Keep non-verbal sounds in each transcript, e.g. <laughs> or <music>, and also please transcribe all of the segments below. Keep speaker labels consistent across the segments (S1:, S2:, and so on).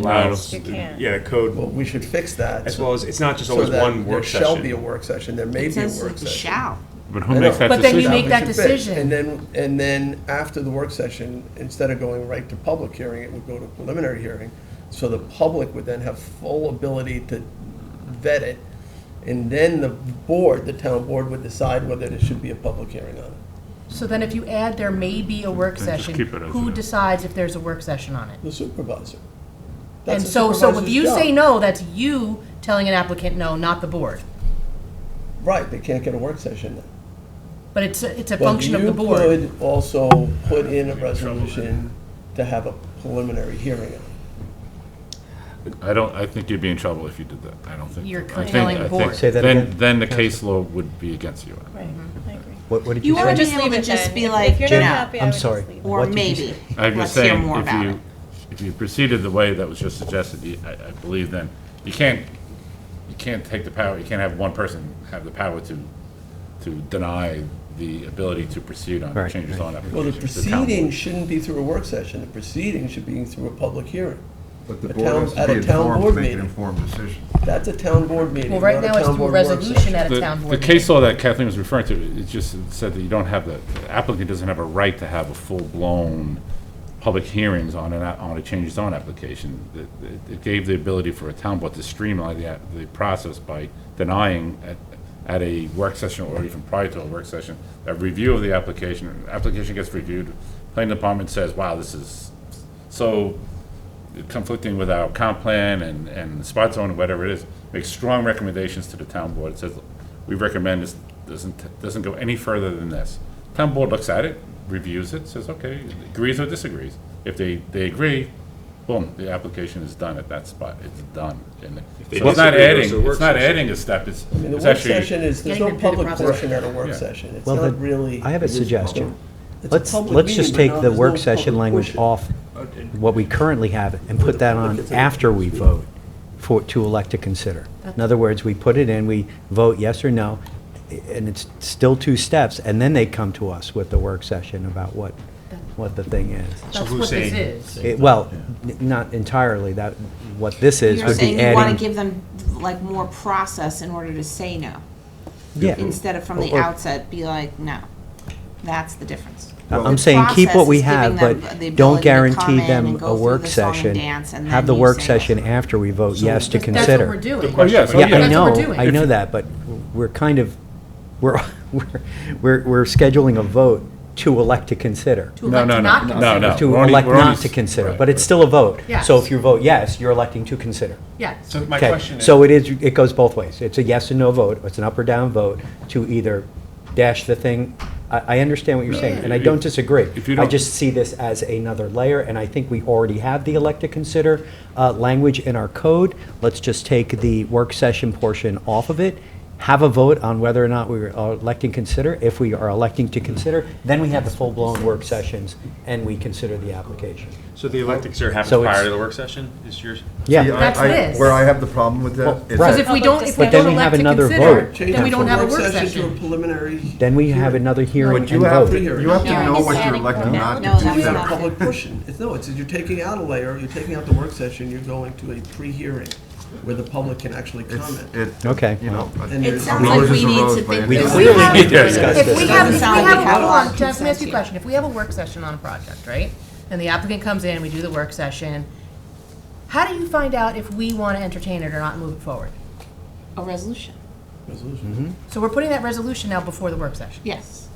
S1: allows.
S2: You can't.
S1: Yeah, the code,
S3: Well, we should fix that.
S1: as
S3: so-
S1: well as, it's not just
S3: so
S1: always
S3: that
S1: one work
S3: There shall be a
S1: session.
S3: work session, there may
S4: It
S3: be a
S4: says
S3: work session.
S4: shall.
S5: But who
S3: I
S5: makes
S3: know.
S5: that
S2: But then you
S5: decision?
S2: make
S3: we
S2: that
S3: should fix.
S2: decision.
S3: And then, and then after the work session, instead of going right to public hearing, it would go to preliminary hearing. So the public would then have full ability to vet it. And then the board, the town board would decide whether there should be a public hearing on it.
S2: So then if you add there may be a work
S5: Then just
S2: session,
S5: keep it as
S2: who
S5: it is.
S2: decides if there's a work session on it?
S3: The supervisor. That's
S2: And
S3: the
S2: so, so if
S3: supervisor's
S2: you say
S3: job.
S2: no, that's you telling an applicant no, not the board.
S3: Right, they can't get a work session then.
S2: But it's, a- it's a
S3: But
S2: function of the board.
S3: You could also put in a resolution to have a preliminary hearing on it.
S5: I don't, I think you'd be in trouble if you did that. I don't think.
S2: You're
S5: I think-
S2: curtailing
S5: I
S2: the
S5: think
S2: board.
S6: Say that
S5: then-
S6: again,
S5: Then the case law would be against you.
S2: Right, I agree.
S6: What, what did
S4: You
S6: you
S4: want
S6: say?
S4: to
S2: just
S4: be able
S2: leave
S4: to
S2: it
S4: just
S2: then.
S4: be
S2: If
S4: like,
S2: you're not
S4: no,
S2: happy, I
S6: I'm
S2: would just
S6: sorry.
S2: leave it.
S4: or
S6: What did you
S4: maybe.
S6: say?
S5: I'm just
S4: Let's hear
S5: saying,
S4: more
S5: if
S4: about it.
S5: you, if you proceeded the way that was just suggested, you- I, I believe then, you can't, you can't take the power, you can't have one person have the power to, to deny the ability to proceed on
S6: Right,
S5: changes
S6: right.
S5: on application.
S3: Well, the
S5: to town board.
S3: proceeding shouldn't be through a work session, the proceeding should be through a public hearing.
S7: But the
S3: A
S7: board
S3: town-
S7: has to
S3: at
S7: be
S3: a town
S7: informed
S3: board
S7: to make an
S3: meeting.
S7: informed decision.
S3: That's a town board meeting,
S2: Well, right
S3: not a
S2: now it's
S3: town
S2: through a
S3: board work
S2: resolution
S3: session.
S2: at a
S5: The-
S2: town board
S5: The case
S2: meeting.
S5: law that Kathleen was referring to, it just said that you don't have, the the applicant doesn't have a right to have a full-blown public hearings on an, a- on a change zone application. It- It it gave the ability for a town board to streamline the, app- the process by denying at, at a work session or even prior to a work session, a review of the application, application gets reviewed, planning department says, wow, this is so conflicting with our comp plan and, and spot zone, and whatever it is, makes strong recommendations to the town board. It says, we recommend this, doesn't, doesn't go any further than this. Town board looks at it, reviews it, says, okay, agrees or disagrees. If they, they agree, boom, the application is done at that spot, it's done. And
S1: they
S5: So it's not
S1: disagree, goes
S5: adding,
S1: to a work
S5: it's not
S1: session.
S5: adding a step, it's,
S3: I mean, the
S5: it's
S3: work
S5: actually.
S3: session is, there's
S2: Getting
S3: no
S2: them through the
S3: public
S2: process.
S3: portion at a work
S5: Yeah.
S3: session, it's
S6: Well,
S3: not
S6: then,
S3: really.
S6: I have a
S3: it is
S6: suggestion.
S3: public. It's a
S6: Let's,
S3: public
S6: let's just
S3: meeting,
S6: take
S3: but now
S6: the
S3: there's
S6: work
S3: no
S6: session
S3: public
S6: language
S3: portion.
S6: off what we currently have and put that on after we vote for, to elect to consider. In other words, we put it in, we vote yes or no, and it's still two steps, and then they come to us with the work session about what, what the thing is.
S2: That's what this is.
S6: It- Well, n- not entirely, that, what this is
S4: You're
S6: would be
S4: saying you want to
S6: adding.
S4: give them like more process in order to say no,
S6: Yeah.
S4: instead of from the
S6: Or- or-
S4: outset, be like, no. That's the difference.
S6: I'm
S4: The
S6: I'm saying keep
S4: process
S6: what we
S4: is giving
S6: have,
S4: them the ability
S6: but don't
S4: to come
S6: guarantee
S4: in and
S6: them
S4: go
S6: a
S4: through
S6: work
S4: the song and
S6: session.
S4: dance and
S6: Have
S4: then
S6: the
S4: you
S6: work
S4: say
S6: session
S4: yes.
S6: after we vote yes to
S2: That's what we're
S6: consider.
S2: doing.
S1: question-
S5: yes, oh,
S6: Yeah, I
S5: That's
S2: what we're
S6: know,
S2: doing.
S6: I know that, but we're kind of, we're, <laughs> we're, we're we're scheduling a vote to elect to consider.
S2: To
S5: No,
S2: elect
S5: no,
S2: to
S5: no,
S2: not
S5: no,
S2: consider.
S5: no.
S6: To
S5: We're only-
S6: elect
S5: we're only
S6: not
S5: s-
S6: to consider,
S5: right,
S6: but
S5: right.
S6: it's still a vote. So
S2: Yes.
S6: if you vote yes, you're electing to consider.
S2: Yeah.
S1: So my
S6: Okay,
S1: question is.
S6: So it is, it goes both ways. It's a yes or no vote, it's an up or down vote to either dash the thing. I, I understand what you're saying, and I don't disagree.
S5: If you
S6: I
S5: don't-
S6: just see this as another layer, and I think we already have the elect to consider uh, language in our code. Let's just take the work session portion off of it, have a vote on whether or not we are electing consider. If we are electing to consider, then we have the full-blown work sessions, and we consider the application.
S1: So the electives are happening
S6: So
S1: prior
S6: it's-
S1: to the work session, is yours?
S7: See, I-
S6: Yeah,
S2: That's
S7: I-
S2: this.
S7: Where I have the problem with
S6: Well,
S7: that is
S6: right.
S2: Because
S7: that
S2: if we don't, if we
S6: But then
S2: don't
S6: we
S2: elect
S6: have
S2: to
S6: another
S2: consider,
S6: vote.
S3: Change
S2: then we
S3: it
S2: don't
S3: from
S2: have a work
S3: To a
S2: session.
S3: preliminary.
S6: then we have another hearing and
S7: you have,
S6: vote.
S7: to- you have to
S3: Yeah,
S7: know
S4: it's
S7: what you're
S4: adding
S7: electing
S4: more.
S7: not
S4: No,
S7: to
S4: that's
S3: It's not a
S4: not-
S7: consider.
S3: public portion, it's, no, it's, you're taking out a layer, you're taking out the work session, you're going to a pre-hearing where the public can actually
S7: It's,
S3: comment.
S7: it,
S6: Okay.
S7: you know.
S3: And
S4: It
S3: there's-
S4: sounds like
S7: Rose
S4: we
S7: is
S4: need
S7: rose,
S4: to
S7: but
S4: think.
S7: we
S4: this
S6: clearly
S4: through.
S6: need to discuss
S2: If we
S6: this.
S2: have, if we
S4: Sound like
S2: have
S4: how
S2: a
S4: long
S2: work, just let me ask you
S4: consent
S2: a question, if we have a work session on a project, right? And the applicant comes in, we do the work session, how do you find out if we want to entertain it or not and move it forward?
S4: A resolution,
S5: Mm-hmm.
S2: So we're putting that resolution now before the work session.
S4: yes.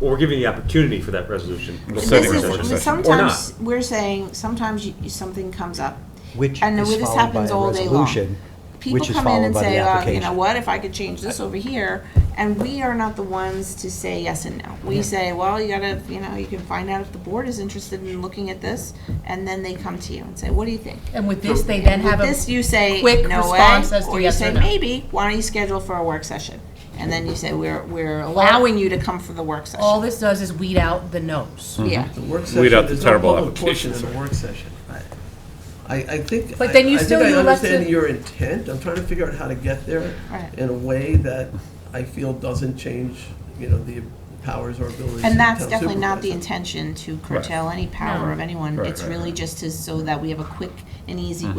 S1: Or we're giving the opportunity for that resolution.
S4: And
S5: setting
S4: This
S5: up
S4: is
S5: a work session.
S4: Sometimes, we're saying, sometimes you- you- something comes up.
S6: Which
S4: And
S6: is
S4: this
S6: followed by
S4: happens
S6: a
S4: all day long.
S6: resolution,
S4: People
S6: which is
S4: come in
S6: followed
S4: and
S6: by the
S4: say, oh, you
S6: application.
S4: know what, if I could change this over here, and we are not the ones to say yes and no. We say, well, you gotta, you know, you can find out if the board is interested in looking at this, and then they come to you and say, what do you think?
S2: And with this, they then
S4: With
S2: have a.
S4: this, you say,
S2: quick
S4: no way,
S2: response as to
S4: or you
S2: yes or
S4: say,
S2: no.
S4: maybe, why don't you schedule for a work session? And then you say, we're, we're allowing you to come for the work
S2: All
S4: session.
S2: this does is weed out the no's.
S6: Mm-hmm.
S4: Yeah.
S3: The
S5: Weed
S3: work
S5: out
S3: session,
S5: the
S3: there's no
S5: terrible
S3: public portion in
S5: applications.
S3: the work session. I- I, I think, I I
S2: But then you
S3: think
S2: still-
S3: I
S2: you elect
S3: understand
S2: to-
S3: your intent, I'm trying to figure out how to get there
S4: Right.
S3: in a way that I feel doesn't change, you know, the powers or abilities of the
S4: And that's
S3: town
S4: definitely not the
S3: supervisor.
S4: intention to curtail any power of anyone.
S5: Right,
S4: It's
S5: right,
S4: really
S5: right.
S6: Mm-hmm.
S4: just to, so that we have a quick and easy